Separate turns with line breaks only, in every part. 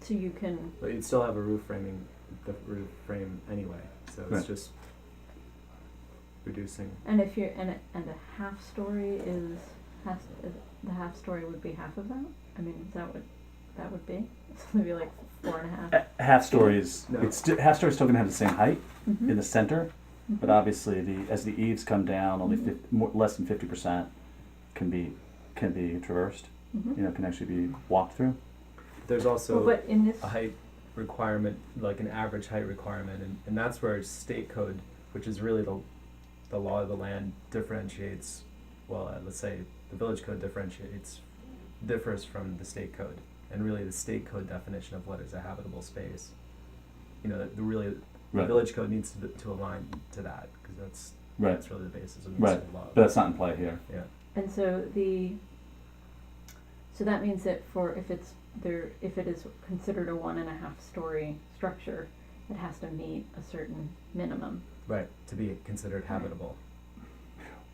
so you can,
But you'd still have a roof framing, the roof frame anyway, so it's
Right.
just reducing.
and if you're, and a, and a half story is, has, is, the half story would be half of that? I mean, is that what that would be? So maybe like four and a half?
A- half story is
No.
it's sti- half story is still gonna have the same height
Mhm.
in the center, but
Mhm.
obviously the as the eaves come down, only
Mm-hmm.
Mhm.
50, more, less than fifty percent can be can be traversed.
Mhm.
You know, can actually be walked through.
There's
Well,
also
but in this,
a height requirement, like an average height requirement, and, and that's where state code, which is really the, the law of the land differentiates, well, uh, let's say the village code differentiates, differs from the state code, and really the state code definition of what is a habitable space. You know, the- the really, the
Right.
village code needs to, to align to that, cause that's,
Right.
that's really the basis of
Right.
municipal law.
But that's not in play here.
and so the, so that means that for, if it's, there, if it is considered a one and a half story structure, it has to meet a certain minimum.
Right, to be considered habitable.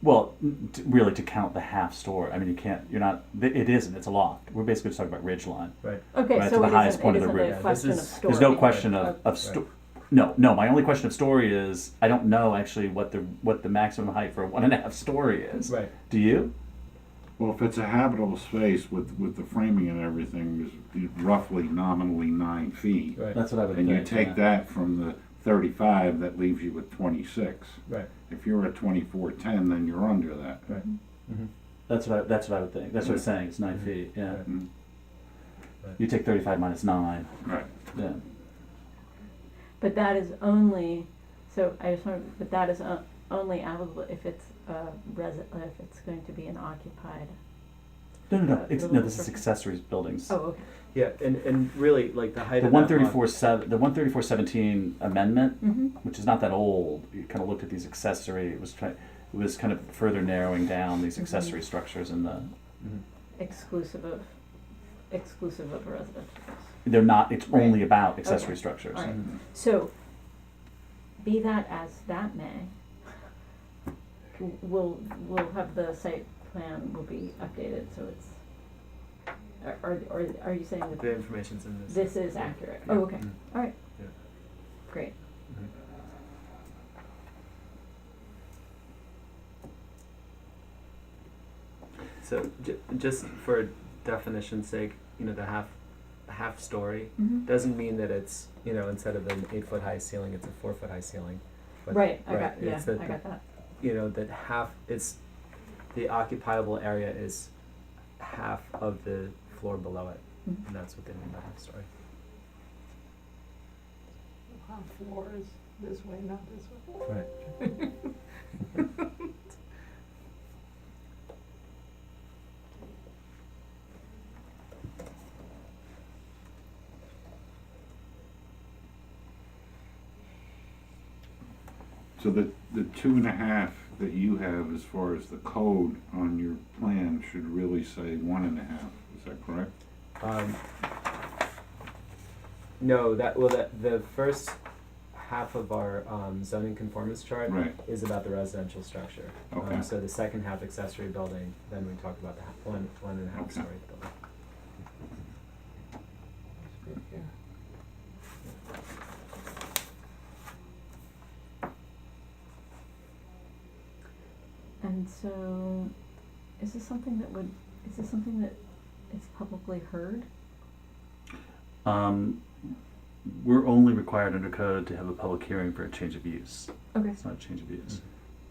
Well, n- t really, to count the half story, I mean, you can't. You're not. th- It isn't. It's a loft. We're basically just talking about ridge line.
Okay,
Right, to
so
the
it
highest
isn't,
point
it
of the
isn't
roof. Yeah,
a
this
question of
is-
story.
There's no question of,
Okay.
of sto- No, no. My only question of story is I don't know actually what the what the maximum height for a one and a half story is.
Right.
Do you?
Well, if it's a habitable space with, with the framing and everything, is roughly nominally nine feet.
Right.
That's what I would.
And you
think, yeah.
take that from the thirty-five, that leaves you with twenty-six.
Right.
If you're at twenty-four ten, then you're under that.
Mhm.
That's what I, that's what I would think. That's what I'm saying. It's nine
Mhm.
feet. Yeah.
Right.
Mm-hmm.
Mm,
You take thirty-five minus nine.
Right.
Yeah.
But that is only, so I just want, but that is o- only applicable if it's a resi, if it's going to be an occupied,
No, no, no.
Uh,
Ex-
the
no, this is
little-
accessories buildings.
oh, okay.
Yeah, and, and really, like the height
The
of that
one
lot-
thirty-four seven, the one thirty-four seventeen amendment,
Mm-hmm,
which is not that old. You kind of looked at these accessory. It was trying. It was kind of further narrowing down these
Mhm.
accessory structures in the
Mhm.
exclusive of, exclusive of residential.
they're not it's
Right.
only about accessory
Okay.
structures
Alright.
Mm-hmm.
So, be that as that may, w- we'll, we'll have the site plan will be updated, so it's, are- are, are, are you saying that
The information's in this.
this is accurate?
Yeah.
Oh, okay,
Mm.
great.
Mhm. So j- just for definition's sake, you know, the half half story
Mm-hmm.
doesn't mean that it's you know instead of an eight foot high ceiling, it's a four foot high ceiling. But,
Right, I
right,
got, yeah,
it's that
I got that.
You know that half it's the occupiable area is half of the floor below it,
Mhm.
and that's what they mean by half story.
On floors, this way, not this way.
So the, the two and a half that you have as far as the code on your plan should really say one and a half, is that correct?
Um, no, that well, that the first half of our um, zoning conformance chart
Right,
is about the residential structure.
Okay.
Um, so the second half accessory building, then we talk about the ha- one one and a half
Okay.
story building.
And so, is this something that would, is this something that is publicly heard?
um, we're only required under code to have a public hearing for a change of use
Okay.
it's not a change of use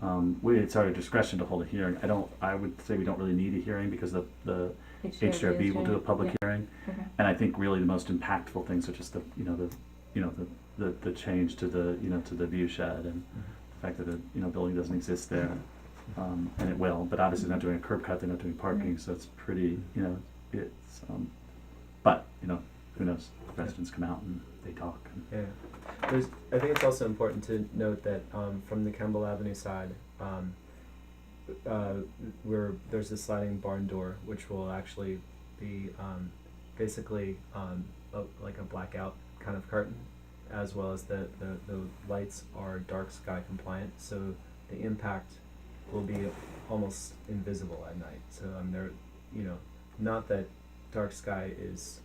um, we, it's our discretion to hold a hearing i don't i would say we don't really need a hearing because the, the hrb will do a public hearing
Okay.
and i think really the most impactful things are just the you know the you know the the, the change to the you know to the view shed and the fact that the you know building doesn't exist there um, and it will but obviously they're not doing a curb cut they're not doing parking so it's pretty you know it's um, but you know who knows residents come out and they talk and
Yeah, there's. I think it's also important to note that um, from the Kemble Avenue side, um, uh, where there's a sliding barn door, which will actually be um, basically um, a, like a blackout kind of curtain, as well as the, the the lights are dark sky compliant, so the impact will be almost invisible at night. So um, there, you know, not that dark sky is